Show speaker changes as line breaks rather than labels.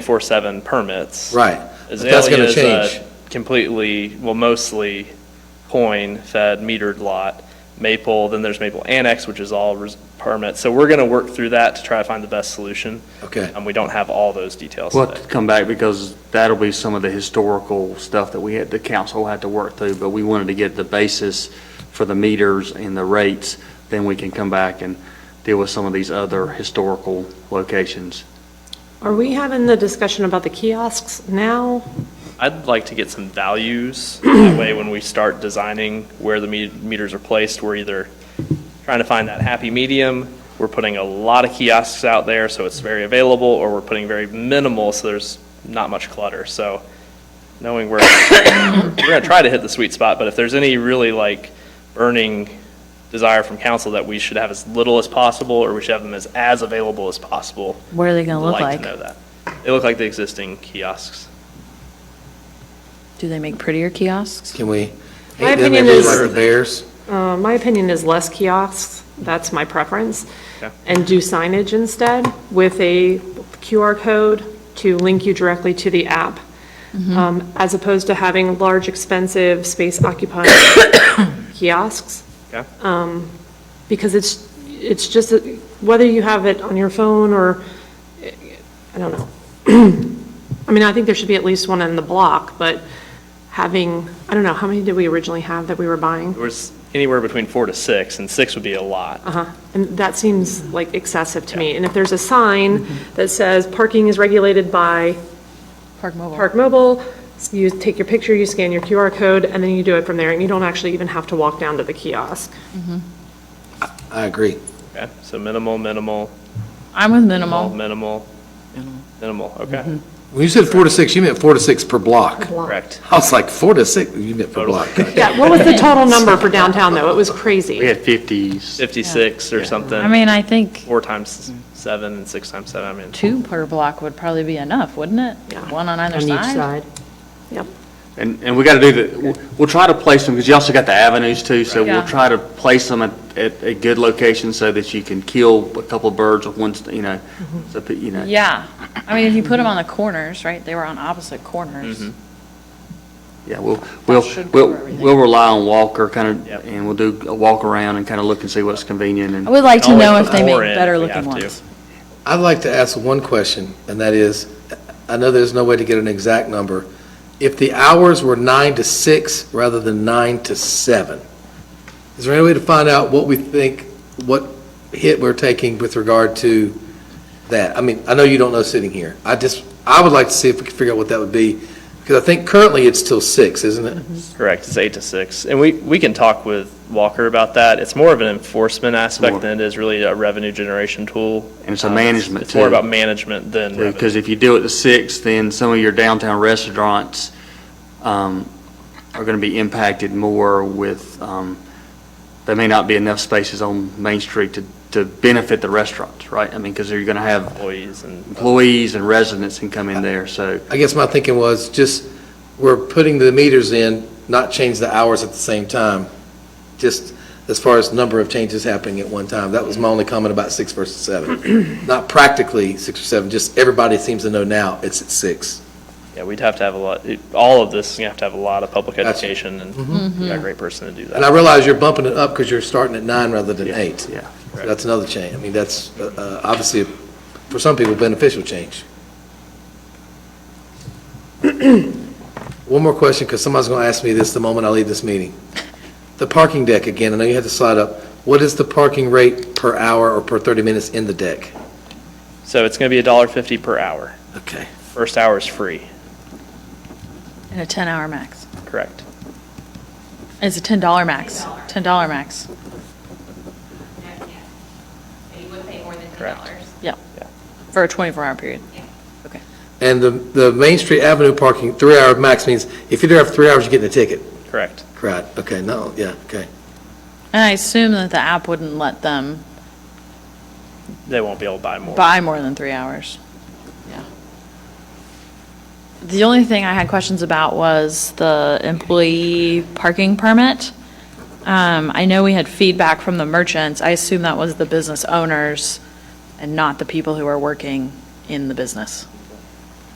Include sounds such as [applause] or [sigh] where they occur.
24/7 permits.
Right. But that's gonna
Azalea is a
change.
Completely, well, mostly coin-fed metered lot. Maple, then there's Maple Annex, which is all res- permits. So we're going to work through that to try to find the best solution.
Okay.
And we don't have all those details
We'll
today.
have to come back because that'll be some of the historical stuff that we had, the council had to work through, but we wanted to get the basis for the meters and the rates, then we can come back and deal with some of these other historical locations.
Are we having the discussion about the kiosks now?
I'd like to get some values, [clears throat] that way when we start designing where the me- meters are placed, we're either trying to find that happy medium, we're putting a lot of kiosks out there, so it's very available, or we're putting very minimal, so there's not much clutter, so knowing where, [coughs] we're gonna try to hit the sweet spot, but if there's any really like burning desire from council that we should have as little as possible, or we should have them as, as available as possible,
What are they going
I'd
to look
like to
like?
know that. They look like the existing kiosks.
Do they make prettier kiosks?
Can we?
My
Hey, then they
opinion
look
is-
Like the Bears?
Uh, My opinion is less kiosks, that's my preference,
Okay.
and do signage instead with a QR code to link you directly to the app, um, as opposed to having large, expensive, space-occupying kiosks.
Okay.
because it's, it's just, that whether you have it on your phone or, I don't know. [clears throat] I mean, I think there should be at least one in the block, but having, I don't know, how many did we originally have that we were buying?
There was anywhere between four to six, and six would be a
Uh-huh.
lot.
And that seems like excessive to me. And if there's a sign that says parking is regulated by
Park Mobile.
Park Mobile, you take your picture, you scan your QR code, and then you do it from there, and you don't actually even have to walk down to the kiosk.
I agree.
Okay, so minimal, minimal,
I'm with
minimal,
minimal.
minimal, minimal, okay,
Mm-hmm.
When you said four to six, you meant four to six per block.
correct.
I was like, four to six, you meant per block.
Yeah, what was the total number for downtown, though? It was crazy.
We had 50s.
56 or something.
I mean, I think
Four times seven and six times seven, I mean,
two per block would probably be enough, wouldn't it?
Yeah.
One on either
On each
side?
side.
Yep.
And, and we got to do the, we'll- we'll try to place them, because you also got the avenues too, so
Yeah.
we'll try to place them at, at a good location so that you can kill a couple of birds with one, st- you know, so, that, you know.
Yeah. I mean, if you put them on the corners, right, they were on opposite corners.
Mm-hmm.
Yeah, we'll, we'll,
should
we'll,
cover everything.
we'll rely on Walker, kind
Yep.
of, and we'll do a walk around and kind of look and see what's convenient and.
I would like to
Always
know
put
if they make
more in if we
better looking
have to.
ones.
I'd like to ask one question, and that is, I know there's no way to get an exact number. If the hours were nine to six rather than nine to seven, is there any way to find out what we think, what hit we're taking with regard to that? I mean, I know you don't know sitting here. I just, I would like to see if we could figure out what that would be, because I think currently it's till six, isn't it?
correct, it's eight to six. And we, we can talk with Walker about that. It's more of an enforcement
More.
aspect than it is really a revenue generation tool.
And it's a
Uh,
management,
It's more
too.
about management than revenue.
Because if you do it the sixth, then some of your downtown restaurants, um, are gonna be impacted more with, um, there may not be enough spaces on Main Street to, to benefit the restaurants, right? I mean, because you're gonna have
Employees and.
employees and residents can come in there, so.
I guess my thinking was just, we're putting the meters in, not change the hours at the same time, just as far as number of changes happening at one time. That was my only comment about six versus seven. [clears throat] Not practically six or seven, just everybody seems to know now it's at six.
Yeah, we'd have to have a lot, it- all of this, you have to have a lot of public
Gotcha.
education, and
Mm-hmm.
we got a great person to do that.
And I realize you're bumping it up because you're starting at nine rather than eight.
Yeah.
So That's another change. I mean, that's uh, uh, obviously, for some people, beneficial change. [clears throat] One more question, because somebody's going to ask me this the moment I leave this meeting. The parking deck, again, I know you had to slide up. What is the parking rate per hour or per 30 minutes in the deck?
So it's gonna be a dollar fifty per hour.
Okay.
First hour is free,
And a 10-hour max.
correct?
It's a $10 max, $10 max.
Not yet. But you would pay more than ten
Correct.
dollars.
Yeah.
Yeah.
For a 24-hour period.
And the, the Main Street Avenue parking, three-hour max means if you're there after three hours, you're getting a ticket.
Correct.
Right, okay, no, yeah, okay.
And I assume that the app wouldn't let them
They won't be able to buy more.
buy more than three hours. Yeah. The only thing I had questions about was the employee parking permit. Um, I know we had feedback from the merchants. I assume that was the business owners and not the people who are working in the business.